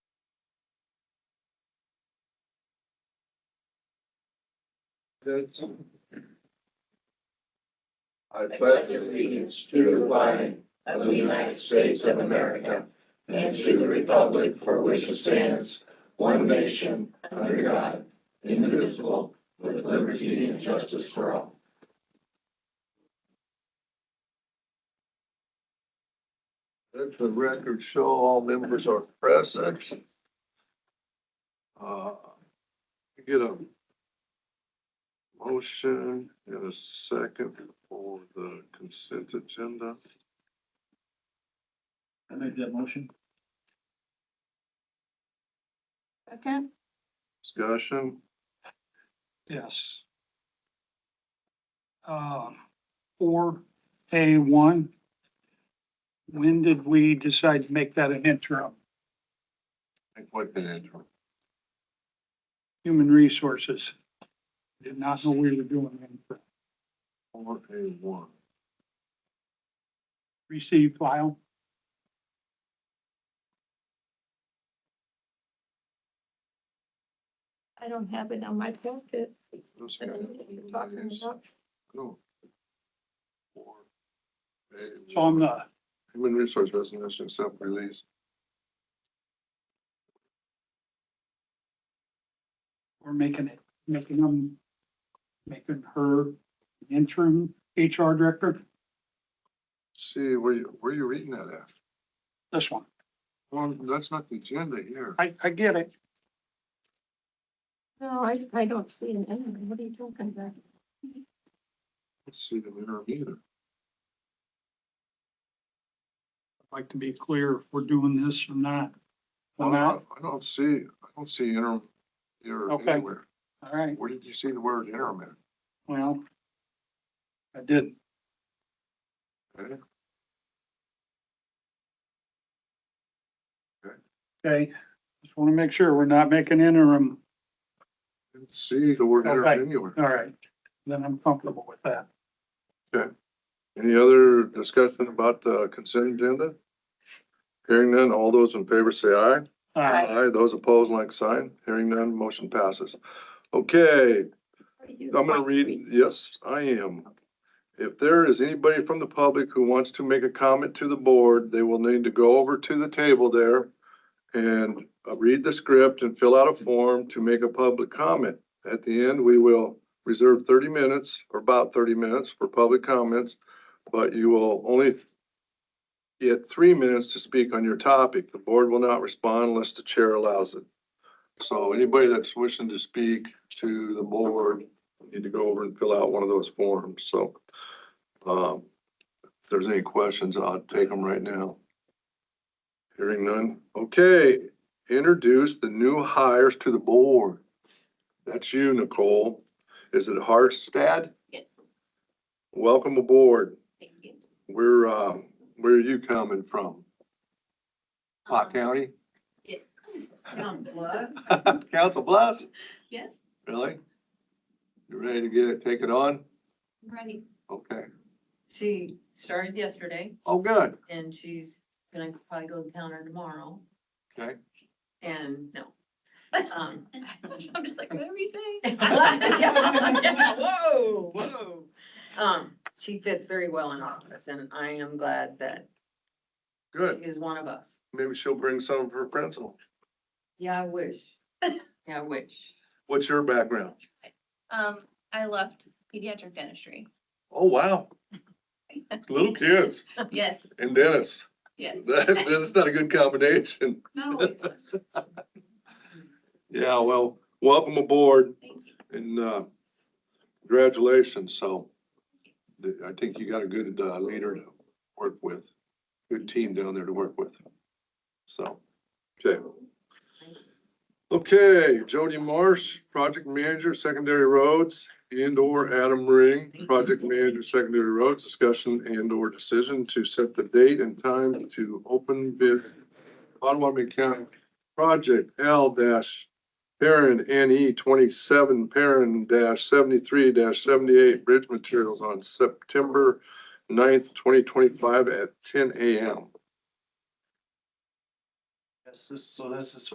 States. I pledge allegiance to the flag of the United States of America and to the republic for which it stands, one nation, under God, indivisible, with liberty and justice for all. Let the record show all members are present. Uh, Get a motion and a second for the consent agenda. I make that motion. Second, Discussion, Yes. Um, Four A one. When did we decide to make that an interim? I think what can enter. Human resources. Did not know we were doing it. Four A one. Receive file. I don't have it on my packet. This I guy don't know what you're talking is- about. no. Four A It's one. on the, Human resource resolution, self-release. we're making it, making them, making her interim HR director, See, where you, where you reading that at? this one. Well, that's not the agenda here. I, I get it. No, I, I don't see it anyway. What are you talking about? Let's see the winner either. I'd like to be clear if we're doing this or not. I I'm out. I don't see, I don't see interim here Okay. anywhere. All right, Where did you see the word interim at? well. I did. Okay. Okay, just want to make sure we're not making interim. Didn't see the word Okay. interim anywhere. All right, then I'm comfortable with that. Any other discussion about the consent agenda? Hearing none, all those in favor say aye. Uh, Aye. Aye, those opposed, like sign. Hearing none, motion passes. Okay, What are you- I'm gonna read, yes, I am. If there is anybody from the public who wants to make a comment to the board, they will need to go over to the table there and uh, read the script and fill out a form to make a public comment. At the end, we will reserve thirty minutes or about thirty minutes for public comments, but you will only get three minutes to speak on your topic. The board will not respond unless the chair allows it. So anybody that's wishing to speak to the board, need to go over and fill out one of those forms, so. Um, if there's any questions, I'll take them right now. Hearing none. Okay, introduce the new hires to the board. That's you, Nicole. Is it Harstad? Yes. Welcome aboard. Thank you. Where, um, where are you coming from? Pot County? Um, what? Council Bluffs? Yes. Really? You ready to get it, take it on? Ready. Okay. She started yesterday Oh, good. and she's gonna probably go to the counter tomorrow Okay. and no. Um, I'm just like, what are you saying? yeah, Whoa, whoa. Um, she fits very well in office and I am glad that Good. she is one of us. Maybe she'll bring some of her pencil. Yeah, I wish. Yeah, I wish. What's your background? Um, I left pediatric dentistry. Oh, wow. Little kids Yes, and dentists. yes. That, that's not a good combination. Not always. fun. Yeah, well, welcome aboard Thank you. and, uh, congratulations. So th- I think you got a good, uh, leader to work with, good team down there to work with. So, okay. Okay, Jody Marsh, Project Manager, Secondary Roads, and/or Adam Ring, Project Manager, Secondary Roads, discussion and/or decision to set the date and time to open bid Potawatomi County Project L dash parent NE twenty-seven parent dash seventy-three dash seventy-eight bridge materials on September 9th, twenty twenty-five at ten AM. Yes, this, so this is